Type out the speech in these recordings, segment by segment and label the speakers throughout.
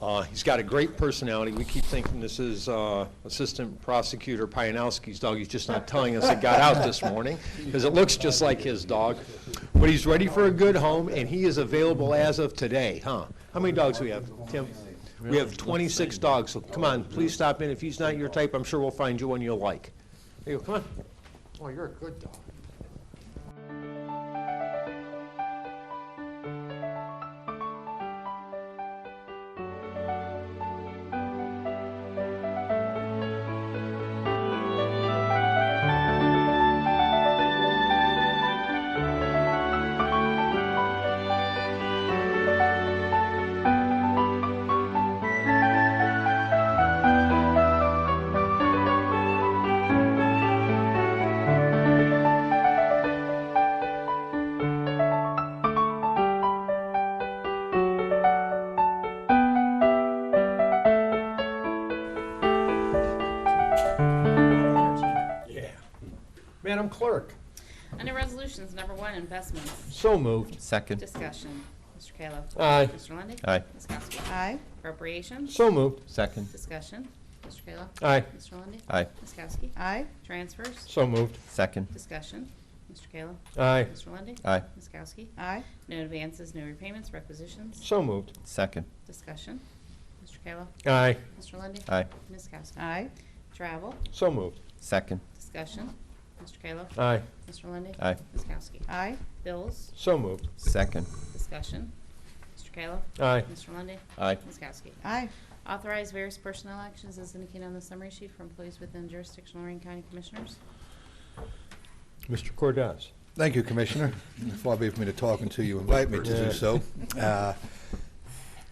Speaker 1: Uh, He's got a great personality. We keep thinking this is uh, Assistant Prosecutor Pianowski's dog. He's just not telling us it got out this morning, because it looks just like his dog. But he's ready for a good home, and he is available as of today, huh? How many dogs we have, Tim? We have 26 dogs, so come on, please stop in. If he's not your type, I'm sure we'll find you one you'll like. There you go, come on.
Speaker 2: Oh, you're a good dog.
Speaker 1: Madam Clerk.
Speaker 3: Under Resolutions Number One, Investments,
Speaker 1: So moved.
Speaker 4: Second.
Speaker 3: Discussion. Mr. Kayla.
Speaker 1: Aye.
Speaker 3: Mr. Lundey.
Speaker 4: Aye.
Speaker 3: Ms. Kowski.
Speaker 5: aye,
Speaker 3: Appropriations,
Speaker 1: So moved.
Speaker 4: Second.
Speaker 3: Discussion. Mr. Kayla.
Speaker 1: Aye.
Speaker 3: Mr. Lundey.
Speaker 4: Aye.
Speaker 3: Ms. Kowski.
Speaker 5: aye,
Speaker 3: Transfers,
Speaker 1: So moved.
Speaker 4: Second.
Speaker 3: Discussion. Mr. Kayla.
Speaker 1: Aye.
Speaker 3: Mr. Lundey.
Speaker 4: Aye.
Speaker 3: Ms. Kowski.
Speaker 5: aye,
Speaker 3: No advances, no repayments, requisitions,
Speaker 1: So moved.
Speaker 4: Second.
Speaker 3: Discussion. Mr. Kayla.
Speaker 1: Aye.
Speaker 3: Mr. Lundey.
Speaker 4: Aye.
Speaker 3: Ms. Kowski.
Speaker 5: aye,
Speaker 3: Travel,
Speaker 1: So moved.
Speaker 4: Second.
Speaker 3: Discussion. Mr. Kayla.
Speaker 1: Aye.
Speaker 3: Mr. Lundey.
Speaker 4: Aye.
Speaker 3: Ms. Kowski.
Speaker 5: aye,
Speaker 3: Bills,
Speaker 1: So moved.
Speaker 4: Second.
Speaker 3: Discussion. Mr. Kayla.
Speaker 1: Aye.
Speaker 3: Mr. Lundey.
Speaker 4: Aye.
Speaker 3: Ms. Kowski.
Speaker 5: aye,
Speaker 3: Authorize various personnel actions as indicated on the summary sheet for employees within jurisdiction of Lorraine County Commissioners.
Speaker 1: Mr. Cordez.
Speaker 6: Thank you, Commissioner. It's far be it for me to talk until you invite me to
Speaker 1: Yeah.
Speaker 6: do so. Uh,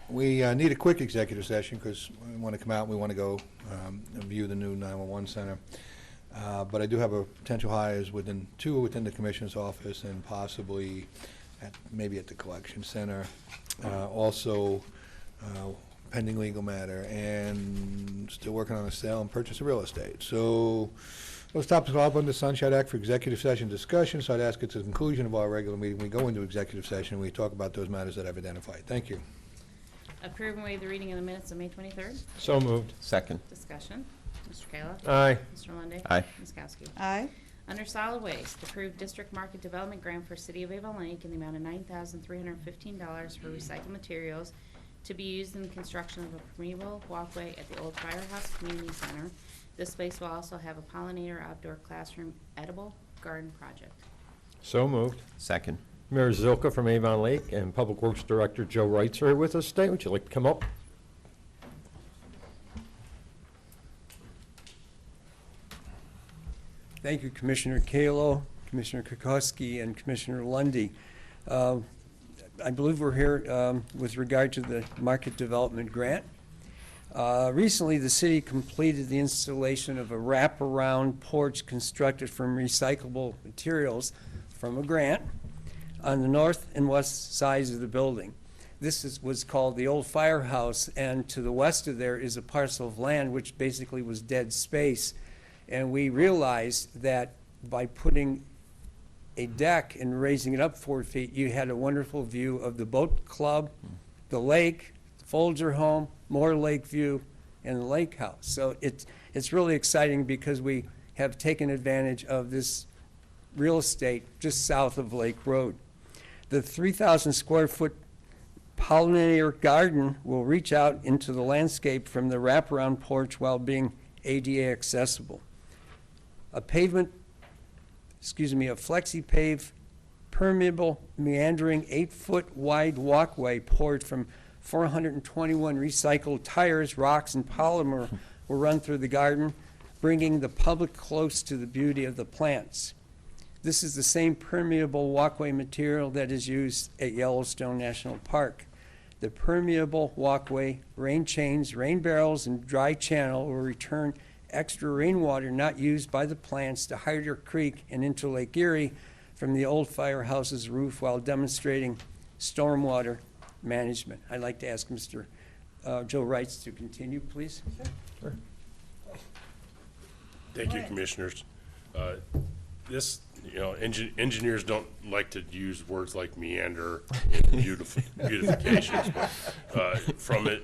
Speaker 6: We uh, need a quick executive session because we want to come out, we want to go um, and view the new 911 center. Uh, But I do have a potential hires within, two within the Commissioner's office and possibly at, maybe at the collection center. Uh, Also uh, pending legal matter and still working on a sale and purchase of real estate. So those topics are all under the Sunshine Act for executive session discussion, so I'd ask at the conclusion of our regular meeting, we go into executive session, we talk about those matters that I've identified. Thank you.
Speaker 3: Approve and waive the reading of the minutes of May twenty-third.
Speaker 1: So moved.
Speaker 4: Second.
Speaker 3: Discussion. Mr. Kayla.
Speaker 1: Aye.
Speaker 3: Mr. Lundey.
Speaker 4: Aye.
Speaker 3: Ms. Kowski.
Speaker 5: aye,
Speaker 3: Under solid waste, approve district market development grant for City of Avon Lake in the amount of nine thousand three hundred and fifteen dollars for recycled materials to be used in the construction of a permeable walkway at the old firehouse community center. This space will also have a pollinator outdoor classroom edible garden project.
Speaker 1: So moved.
Speaker 4: Second.
Speaker 1: Mayor Zilka from Avon Lake and Public Works Director Joe Wrights are here with us today. Would you like to come up?
Speaker 7: Thank you, Commissioner Kalo, Commissioner Kokoski, and Commissioner Lundy. Uh, I believe we're here um, with regard to the market development grant. Uh, Recently, the city completed the installation of a wraparound porch constructed from recyclable materials from a grant on the north and west sides of the building. This is, was called the old firehouse, and to the west of there is a parcel of land which basically was dead space. And we realized that by putting a deck and raising it up four feet, you had a wonderful view of the boat club, the lake, Folger Home, Moore Lake View, and the lake house. So it's, it's really exciting because we have taken advantage of this real estate just south of Lake Road. The 3,000 square foot pollinator garden will reach out into the landscape from the wraparound porch while being ADA accessible. A pavement, excuse me, a flexi-pave permeable meandering eight-foot wide walkway poured from 421 recycled tires, rocks, and polymer will run through the garden, bringing the public close to the beauty of the plants. This is the same permeable walkway material that is used at Yellowstone National Park. The permeable walkway, rain chains, rain barrels, and dry channel will return extra rainwater not used by the plants to Hyder Creek and into Lake Erie from the old firehouse's roof while demonstrating stormwater management. I'd like to ask Mr. uh, Joe Wrights to continue, please.
Speaker 8: Thank you, Commissioners. Uh, This, you know, engi- engineers don't like to use words like meander and beautif- beautifications, but uh, from it.